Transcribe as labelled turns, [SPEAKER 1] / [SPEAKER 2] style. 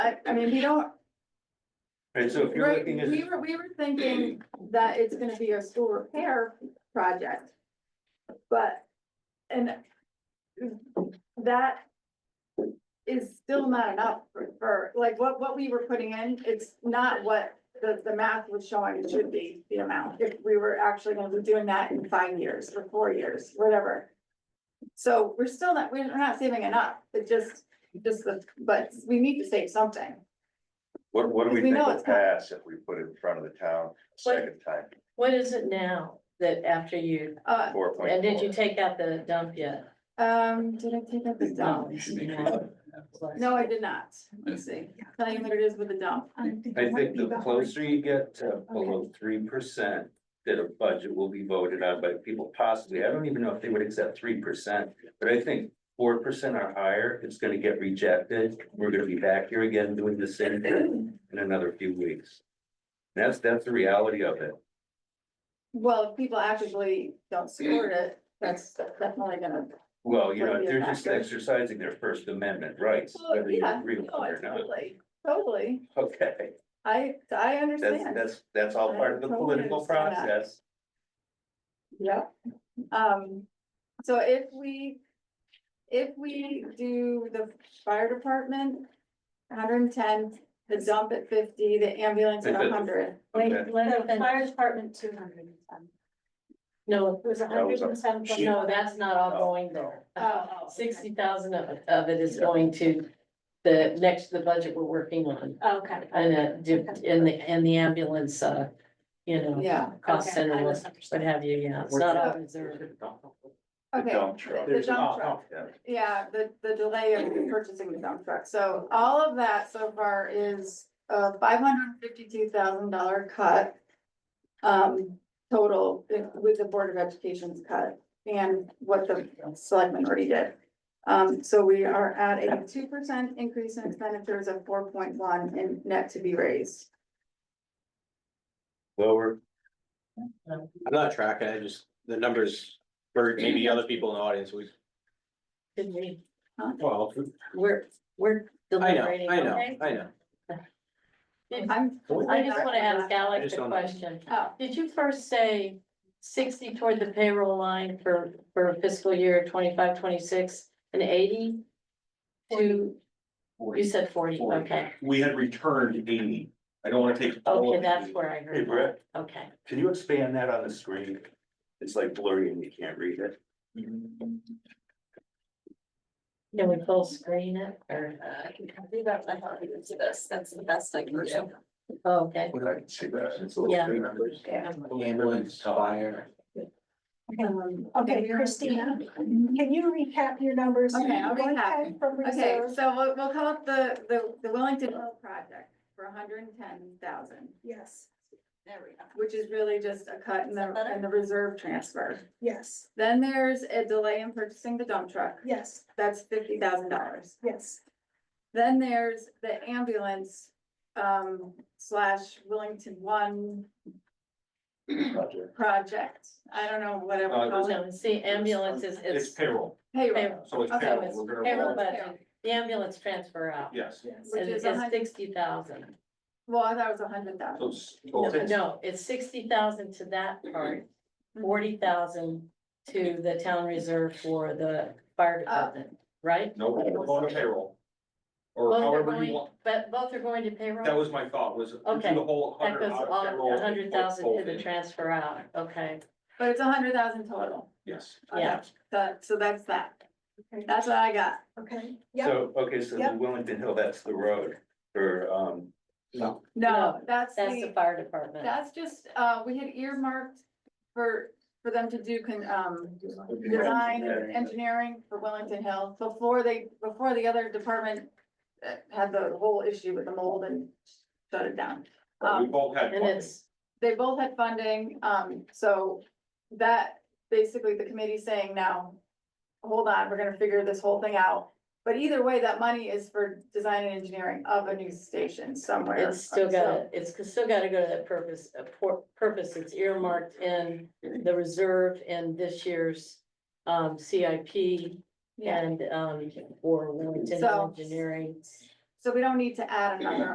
[SPEAKER 1] I, I mean, we don't,
[SPEAKER 2] Right, so if you're
[SPEAKER 1] right,
[SPEAKER 2] looking at,
[SPEAKER 1] we were, we were thinking that it's gonna be a school repair project. But, and that is still not enough for, for, like, what, what we were putting in, it's not what the, the math was showing it should be the amount. If we were actually gonna be doing that in five years or four years, whatever. So we're still not, we're not saving enough, it just, just the, but we need to save something.
[SPEAKER 3] What, what do we
[SPEAKER 1] We
[SPEAKER 3] think
[SPEAKER 1] know
[SPEAKER 3] will
[SPEAKER 1] it's not-
[SPEAKER 3] pass if we put it in front of the town a second time,
[SPEAKER 4] What is it now that after you,
[SPEAKER 1] Uh,
[SPEAKER 3] four point
[SPEAKER 4] and did you
[SPEAKER 3] four?
[SPEAKER 4] take out the dump yet? Oh,
[SPEAKER 1] Um, did I take out the dump? No, I did not. Let's see. Tell you what it is with the dump.
[SPEAKER 5] Um,
[SPEAKER 2] I think the closer you get to below three percent, that a budget will be voted on by people possibly, I don't even know if they would accept three percent, but I think four percent or higher, it's gonna get rejected, we're gonna be back here again doing the same thing in another few weeks. That's, that's the reality of it.
[SPEAKER 1] Well, if people actually don't support it, that's definitely gonna.
[SPEAKER 2] Well, you know,
[SPEAKER 1] Might be a
[SPEAKER 2] they're just
[SPEAKER 1] factor.
[SPEAKER 2] exercising their First Amendment rights,
[SPEAKER 1] Well,
[SPEAKER 2] whether you
[SPEAKER 1] yeah,
[SPEAKER 2] agree with it
[SPEAKER 1] no,
[SPEAKER 2] or not.
[SPEAKER 1] Totally, totally.
[SPEAKER 2] Okay,
[SPEAKER 1] I, I
[SPEAKER 2] that's,
[SPEAKER 1] understand.
[SPEAKER 2] that's, that's all part of the
[SPEAKER 1] I totally
[SPEAKER 2] political
[SPEAKER 1] understand that.
[SPEAKER 2] process.
[SPEAKER 1] Yeah. Um, so if we, if we do the fire department, hundred and ten, the dump at fifty, the ambulance at
[SPEAKER 2] Okay.
[SPEAKER 1] hundred.
[SPEAKER 2] Okay.
[SPEAKER 5] The fire department, two hundred and ten.
[SPEAKER 4] No,
[SPEAKER 5] It was a
[SPEAKER 3] That was
[SPEAKER 5] hundred
[SPEAKER 3] a
[SPEAKER 5] and ten.
[SPEAKER 4] no, that's not all going there.
[SPEAKER 1] Oh,
[SPEAKER 4] Sixty thousand of, of it is going to the next, the budget we're working on.
[SPEAKER 5] oh, Okay.
[SPEAKER 4] And, uh, di- and the, and the ambulance, uh, you know,
[SPEAKER 1] Yeah,
[SPEAKER 4] cost
[SPEAKER 5] Okay, I
[SPEAKER 4] center, what what
[SPEAKER 5] misunderstood.
[SPEAKER 4] have you, yeah, it's not all reserved.
[SPEAKER 3] The
[SPEAKER 1] okay.
[SPEAKER 3] dump truck.
[SPEAKER 1] The dump truck.
[SPEAKER 3] Yeah.
[SPEAKER 1] Yeah, the, the delay of purchasing the dump truck, so all of that so far is a five hundred fifty-two thousand dollar cut. Um, total with the Board of Education's cut and what the selectmen already did. Um, so we are at a two percent increase in expenditures of four point one in net to be raised.
[SPEAKER 6] lower. I'm not tracking, I just, the numbers, or maybe other people in the audience, we,
[SPEAKER 4] Didn't we,
[SPEAKER 6] well,
[SPEAKER 4] we're, we're
[SPEAKER 6] I know,
[SPEAKER 4] deliberating,
[SPEAKER 6] I know,
[SPEAKER 4] okay?
[SPEAKER 6] I know.
[SPEAKER 1] I'm.
[SPEAKER 4] I just wanna ask
[SPEAKER 6] I
[SPEAKER 4] Alex
[SPEAKER 6] just
[SPEAKER 4] a
[SPEAKER 6] don't know.
[SPEAKER 4] question.
[SPEAKER 1] Oh,
[SPEAKER 4] Did you first say sixty toward the payroll line for, for fiscal year 25, 26, and eighty? To, you said forty, okay,
[SPEAKER 7] We had returned eighty. I don't wanna take. all
[SPEAKER 4] okay,
[SPEAKER 7] of
[SPEAKER 4] that's
[SPEAKER 7] 80.
[SPEAKER 4] where I
[SPEAKER 2] Hey,
[SPEAKER 4] heard
[SPEAKER 2] Brett.
[SPEAKER 4] that, okay.
[SPEAKER 2] Can you expand that on the screen? It's like blurry and you can't read it.
[SPEAKER 4] Can we full screen it, or, uh,
[SPEAKER 5] I can do that, I thought we would do this, that's the best I can do.
[SPEAKER 4] oh, okay,
[SPEAKER 3] What did I say that? It's a little
[SPEAKER 4] Yeah.
[SPEAKER 3] bit numbers.
[SPEAKER 6] Ambulance, fire.
[SPEAKER 5] Okay, Christina, can you recap your numbers?
[SPEAKER 1] Okay, I'll
[SPEAKER 5] One
[SPEAKER 1] recap.
[SPEAKER 5] ten From
[SPEAKER 1] Okay,
[SPEAKER 5] reserve,
[SPEAKER 1] so we'll, we'll call up the, the, the Wellington Road project for hundred and ten thousand.
[SPEAKER 5] yes. There we go.
[SPEAKER 1] which is really just a cut in the, in the reserve transfer.
[SPEAKER 5] Yes,
[SPEAKER 1] Then there's a delay in purchasing the dump truck,
[SPEAKER 5] yes,
[SPEAKER 1] that's fifty thousand dollars.
[SPEAKER 5] yes,
[SPEAKER 1] Then there's the ambulance, um, slash Willington One
[SPEAKER 3] Project.
[SPEAKER 1] project, I don't know, whatever.
[SPEAKER 2] Uh,
[SPEAKER 1] we call it.
[SPEAKER 4] no, see, ambulance is,
[SPEAKER 7] It's
[SPEAKER 4] it's
[SPEAKER 7] payroll,
[SPEAKER 1] Payroll.
[SPEAKER 7] so it's
[SPEAKER 1] Okay,
[SPEAKER 7] payroll.
[SPEAKER 4] it's
[SPEAKER 7] We're gonna
[SPEAKER 4] payroll
[SPEAKER 7] roll-
[SPEAKER 4] budget. the ambulance transfer out.
[SPEAKER 7] Yes.
[SPEAKER 5] yes.
[SPEAKER 1] Which
[SPEAKER 4] Is,
[SPEAKER 1] is a hun-
[SPEAKER 4] sixty thousand,
[SPEAKER 1] Well, I thought it was a hundred thousand.
[SPEAKER 7] So it's-
[SPEAKER 2] Oh,
[SPEAKER 4] no, it's sixty thousand to that part,
[SPEAKER 1] Mm-hmm.
[SPEAKER 4] forty thousand to the town reserve for the fire department, right?
[SPEAKER 7] No, we're going to payroll. Or
[SPEAKER 4] Both are
[SPEAKER 7] however you
[SPEAKER 4] going,
[SPEAKER 7] want.
[SPEAKER 4] but both are going to payroll?
[SPEAKER 7] That was my thought was. do
[SPEAKER 4] Okay.
[SPEAKER 7] The whole
[SPEAKER 4] That
[SPEAKER 7] hundred.
[SPEAKER 4] goes
[SPEAKER 7] out of
[SPEAKER 4] all,
[SPEAKER 7] payroll,
[SPEAKER 4] a hundred thousand to
[SPEAKER 7] both
[SPEAKER 4] the
[SPEAKER 7] in.
[SPEAKER 4] transfer out, okay,
[SPEAKER 1] But it's a hundred thousand total,
[SPEAKER 7] Yes.
[SPEAKER 4] yeah.
[SPEAKER 1] That- so that's that,
[SPEAKER 5] Okay,
[SPEAKER 1] that's what I got.
[SPEAKER 5] Okay, yeah,
[SPEAKER 2] So, okay, so the
[SPEAKER 5] Yep.
[SPEAKER 2] Wellington Hill, that's the road for, um,
[SPEAKER 1] No,
[SPEAKER 4] No,
[SPEAKER 1] that's
[SPEAKER 4] That's the
[SPEAKER 1] the,
[SPEAKER 4] fire department.
[SPEAKER 1] that's just, uh, we had earmarked for, for them to do con, um, design and engineering for Wellington Hill before they, before the other department uh, had the whole issue with the mold and shut it down.
[SPEAKER 7] We
[SPEAKER 1] Um,
[SPEAKER 7] both had.
[SPEAKER 4] And
[SPEAKER 7] funding.
[SPEAKER 4] it's,
[SPEAKER 1] they both had funding, um, so that, basically the committee's saying now, hold on, we're gonna figure this whole thing out. But either way, that money is for design and engineering of a new station somewhere.
[SPEAKER 4] it's
[SPEAKER 1] So,
[SPEAKER 4] still gotta, it's still gotta go to that purpose, uh, por- purpose, it's earmarked in the reserve in this year's um, CIP
[SPEAKER 1] Yeah,
[SPEAKER 4] and um, for Wilmington
[SPEAKER 1] So-
[SPEAKER 4] Engineering.
[SPEAKER 1] So we don't need to add another